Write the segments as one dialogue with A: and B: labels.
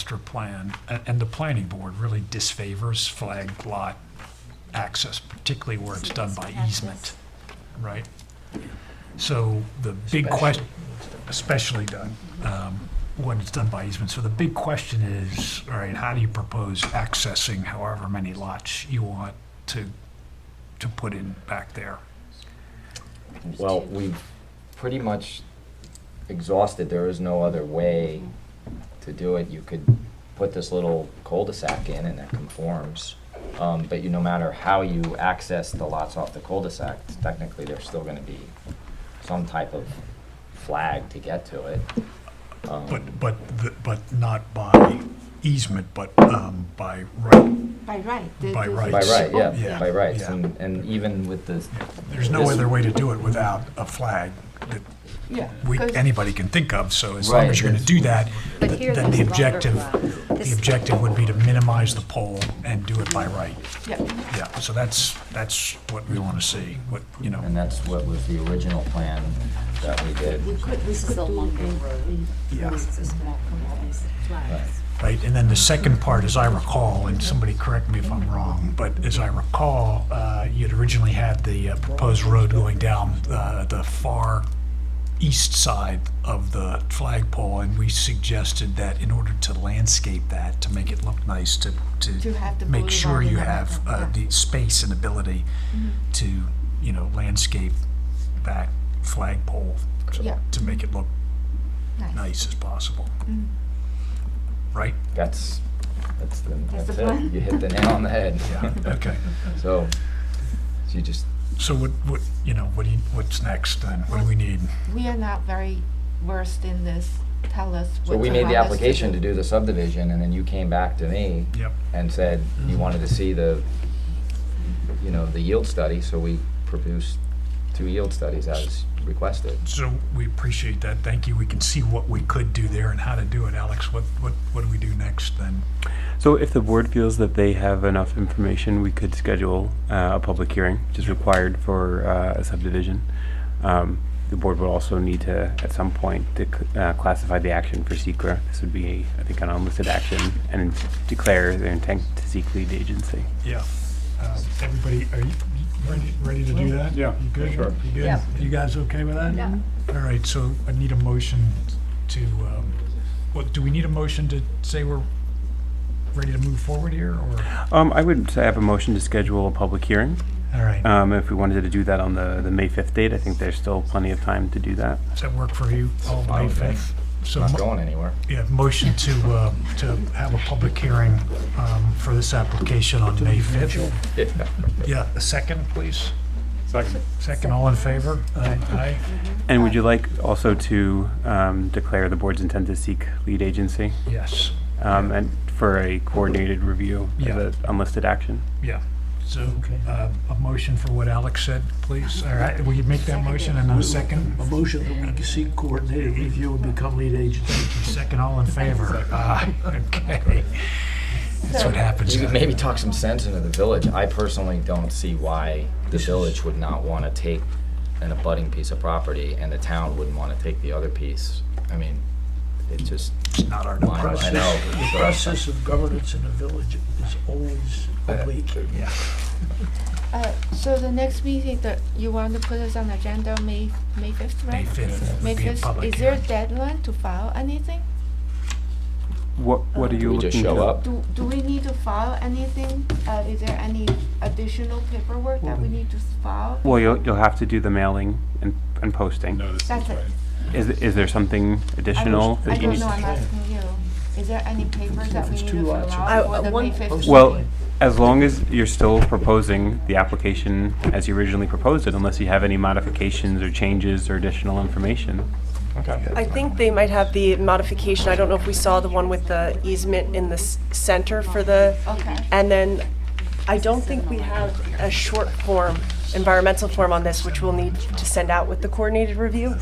A: master plan, a- and the planning board really disfavors flag lot access, particularly where it's done by easement, right? So the big question, especially done, um, when it's done by easement. So the big question is, all right, how do you propose accessing however many lots you want to, to put in back there?
B: Well, we've pretty much exhausted, there is no other way to do it. You could put this little cul-de-sac in and that conforms. Um, but you, no matter how you access the lots off the cul-de-sac, technically, there's still gonna be some type of flag to get to it. Um,
A: But, but, the- but not by easement, but um, by right.
C: By right. the-
A: By
C: the-
A: right.
B: By right,
A: Oh, Yeah.
B: yeah, by rights,
A: Yeah.
B: and, and even with the.
A: There's no
B: this-
A: other way to do it without a flag that
C: Yeah.
A: we,
C: Because-
A: anybody can think of. So as long as you're going to
B: Right.
A: do that,
D: But
A: th-
D: here's
A: then the
D: this longer
A: objective,
D: flag.
A: the
D: This-
A: objective would be to minimize the pole and do it by right.
C: Yeah,
A: Yeah, so that's, that's what we want to see, what, you know.
B: And that's what was the original plan that we did.
C: we could, we
D: This is
C: could
D: a
C: do
D: longer
C: a-
D: road.
C: a-
A: Yeah.
D: This is small, these flags.
A: right? And then the second part, as I recall, and somebody correct me if I'm wrong, but as I recall, uh, you'd originally had the uh, proposed road going down uh, the far east side of the flagpole, and we suggested that in order to landscape that, to make it look nice, to,
C: To have the
A: to make sure
C: boulevard
A: you
C: and
A: have uh,
C: everything, yeah.
A: the space and ability
C: Mm-hmm.
A: to, you know, landscape that flagpole to-
C: Yeah.
A: to make it look
C: Nice.
A: nice as possible.
C: Mm.
A: Right?
B: That's, that's the,
C: That's
B: that's
C: the plan.
B: it. You hit the nail on the head.
A: Yeah,
C: Mm-hmm.
A: okay.
B: So, so you just,
A: So what, what, you know, what do you, what's next then? What do we need?
C: We are not very versed in this. Tell us what
B: so we
C: you
B: made the
C: want us
B: application to do the subdivision, and then you came back to me
A: Yep.
B: and said you wanted to see the, you know, the yield study, so we produced two yield studies as requested.
A: So we appreciate that. Thank you. We can see what we could do there and how to do it. Alex, what, what, what do we do next then?
E: So if the board feels that they have enough information, we could schedule uh, a public hearing, which is required for uh, a subdivision. Um, The board would also need to, at some point, to c- uh, classify the action for secra. This would be, I think, an unlisted action and declare their intent to seek lead agency.
A: Yeah. Uh, Everybody, are you you ready, ready to do that?
E: Yeah,
A: You good?
E: sure.
A: You good?
D: Yeah.
A: You guys okay with that?
D: Yeah.
A: All right, so I need a motion to, um, what, do we need a motion to say we're ready to move forward here or?
E: Um, I would say I have a motion to schedule a public hearing.
A: All right.
E: Um, If we wanted to do that on the, the May 5th date, I think there's still plenty of time to do that.
A: Does that work for you? All May
B: Fine with me.
A: 5th?
B: It's
A: So
B: not
A: mo-
B: going anywhere.
A: Yeah, motion to, uh, to have a public hearing um, for this application on May 5th. Yeah, a second, please.
E: Second.
A: Second, all in favor? Aye.
E: And would you like also to um, declare the board's intent to seek lead agency?
A: Aye. Yes,
E: Um, and for a coordinated review
A: Yeah.
E: of the unlisted action.
A: yeah. So uh, a motion for what Alex said, please. All right, will you make that motion and a second?
F: A motion that we seek coordinated review and become lead agency.
A: Second, all in favor? Aye, okay. That's what happens.
B: You could maybe talk some sense into the village. I personally don't see why the village would not want to take an abutting piece of property and the town wouldn't want to take the other piece. I mean, it just,
A: It's not our
B: I know.
A: process.
F: The
B: so-
F: process of governance in a village is always oblique.
A: Yeah.
C: Uh, so the next meeting, that you want to put us on agenda, May, May fifth,
A: May
C: right?
A: 5th
C: May
A: would be a
C: fifth,
A: public
C: is there a
A: hearing.
C: deadline to file anything?
E: What, what are you
B: we
E: looking
B: just
E: to?
B: show up?
C: Do, do we need to file anything? Uh, is there any additional paperwork that we need to file?
E: Well, you'll, you'll have to do the mailing and, and posting.
C: That's it.
E: Is, is there something
C: I
E: additional
C: don't-
E: that you
C: I don't
E: need?
C: know, I'm asking you. Is there any paper that we
F: it's
C: need
F: two
C: to fill
F: lots,
G: uh,
C: out
D: I-
C: for the
D: one
C: May fifth?
F: posted.
E: Well, as long as you're still proposing the application as you originally proposed it, unless you have any modifications or changes or additional information.
G: I think they might have the modification, I don't know if we saw the one with the easement in the s- center for the,
C: Okay.
G: and then I don't think we have a short form, environmental form on this, which we'll need to send out with the coordinated review.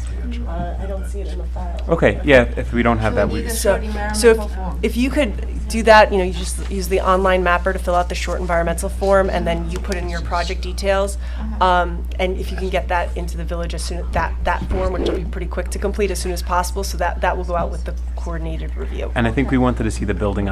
G: Uh, I don't see it in the file.
E: Okay, yeah, if we don't have that, we,
C: need a
G: So,
C: short
G: so
C: environmental
G: if,
C: form.
G: if you could do that, you know, you just use the online mapper to fill out the short environmental form, and then you put in your project details. Um, and if you can get that into the village as soon, that, that form, which will be pretty quick to complete as soon as possible, so that, that will go out with the coordinated review.
E: And I think we wanted to see the building